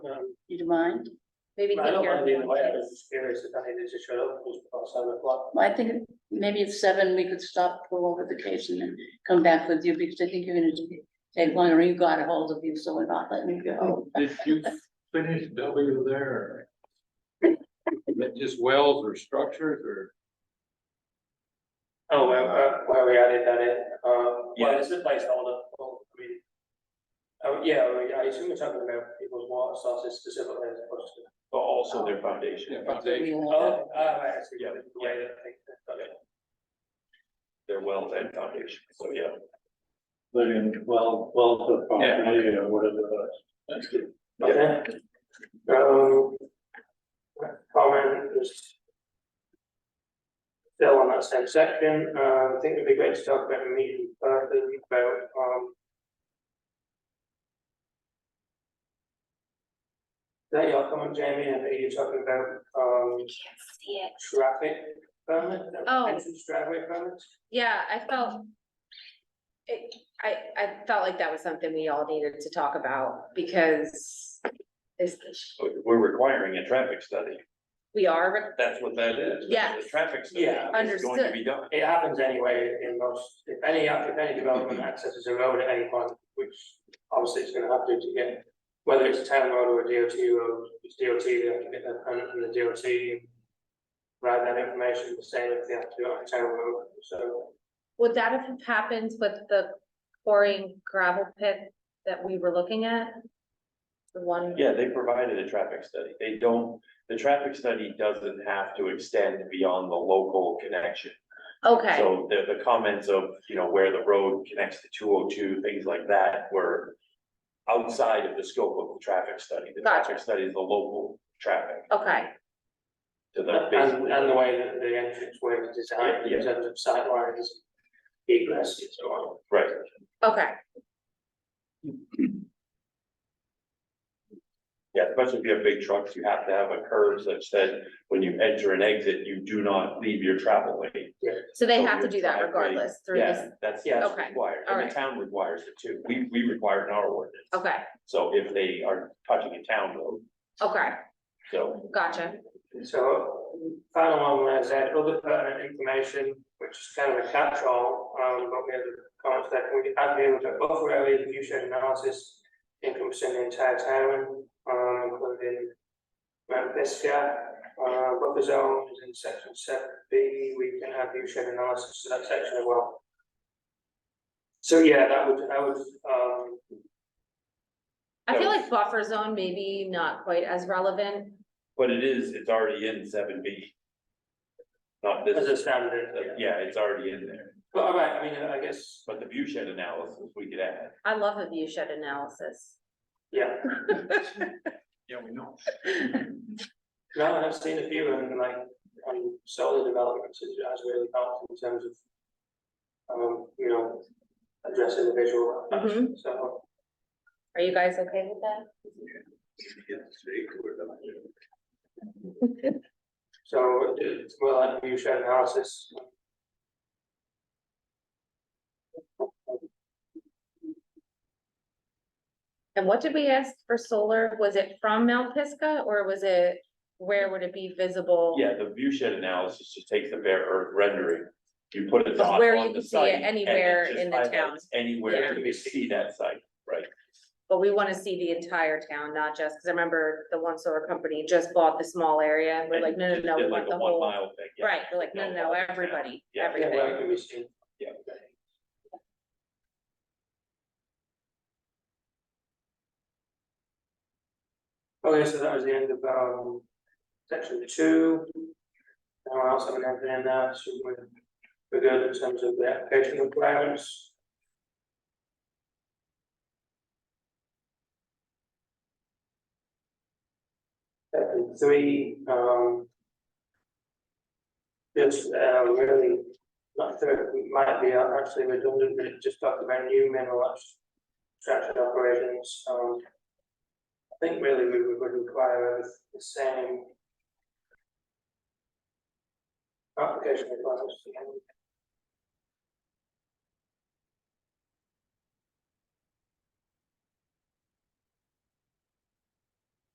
Um, You do mind? Maybe I take don't care mind of being away, I it. was just curious if I needed to shut up, it was about seven o'clock. Well, I think maybe at seven, we could stop, go over the case and then come back with you, because I think you're gonna do- take longer, you got a hold of you, so we're not letting you go. Did you finish W there? Is that just wells or structures or? Oh, well, uh, where we added that in, um, well, Yeah. it's a placeholder, well, I mean. Oh, yeah, well, yeah, I assume we're talking about people's water sources specifically as opposed to. but also their foundation, Yeah, foundation. Oh, ah, right, I see, yeah, Yeah, the way that I think that- okay. their wells and foundation, so yeah. But in well, well, the property or whatever. That's good. Okay. Um. oh, Comment was. Still on that same section, uh, I think it'd be great to talk about a meeting, uh, about, um. Is That your comment, Jamie, and are you talking about, um, See it. traffic permit? Oh. Entrance driveway permits? Yeah, I felt. It, I, I felt like that was something we all needed to talk about because this, We're requiring a traffic study. we are, re- That's what that is. Yes. The traffic study Yeah. is going to be done. It happens anyway in most, if any, if any development accesses a road at any point, which obviously it's gonna have to to get. Whether it's a town road or a DOT road, it's DOT, they have to get their permit from the DOT. Write that information, the same if they have to do it on a town road, so. would that have happened with the quarrying gravel pit that we were looking at? The one, Yeah, they provided a traffic study. They don't, the traffic study doesn't have to extend beyond the local connection. okay, So the, the comments of, you know, where the road connects to two oh two, things like that were outside of the scope of the traffic study. The Gotcha. traffic study is the local traffic okay, to the And, basically. and the way that the entrance way is designed in Yeah. terms of sight lines, egress and so on. Right. okay, Yeah, especially if you have big trucks, you have to have a curve such that when you enter and exit, you do not leave your travel lane. so they So have to your do that driveway- regardless through Yeah, this, that's, Yeah. that's Okay, required, all and right. the town requires it too, we, we require it in our ordinance. okay, So if they are touching a town road, okay, so, gotcha, So final one was that other pertinent information, which is kind of a catch-all, um, but we had the comments that we add in the buffer area view shed analysis encompassing the entire town, um, including Mount Pisgah, uh, buffer zone is in section seven B, we can have view shed analysis to that section as well. So yeah, that would, I would, um, I feel That like buffer zone maybe not quite as relevant, but it is, it's already in seven B. Not as this, a standard, yeah. yeah, it's already in there, But all right, I mean, I guess, but the view shed analysis, we could add. I love a view shed analysis. yeah. Yeah, we know. No, and I've seen a few and like, on solar developments, it has really helped in terms of. Um, you know, addressing the visual, Mhm. so, Are you guys okay with that? so it's well, like you shared analysis. And what did we ask for solar? Was it from Mount Pisgah or was it, where would it be visible? Yeah, the view shed analysis just takes the bare earth rendering, you put a dot Where you on can the see it site. and anywhere just in the town. highlights Yeah. Anywhere you can see that site, right? But we want to see the entire town, not just, because I remember the one solar company just bought the small area and we're like, no, no, Just no, did we like want a the one whole. mile thing, yeah. Right, we're like, no, no, no, everybody, Yeah. Yeah, well, it everything. can be seen. Yeah. Okay, so that was the end of, um, section two. Anyone else have anything in there, so we're, we're good in terms of the application requirements. Section three, um. Just, uh, really, not sure, it might be actually redundant, but it just talked about new mineral extraction operations, um. I think really we would- would require everyth- the same. Application requirements.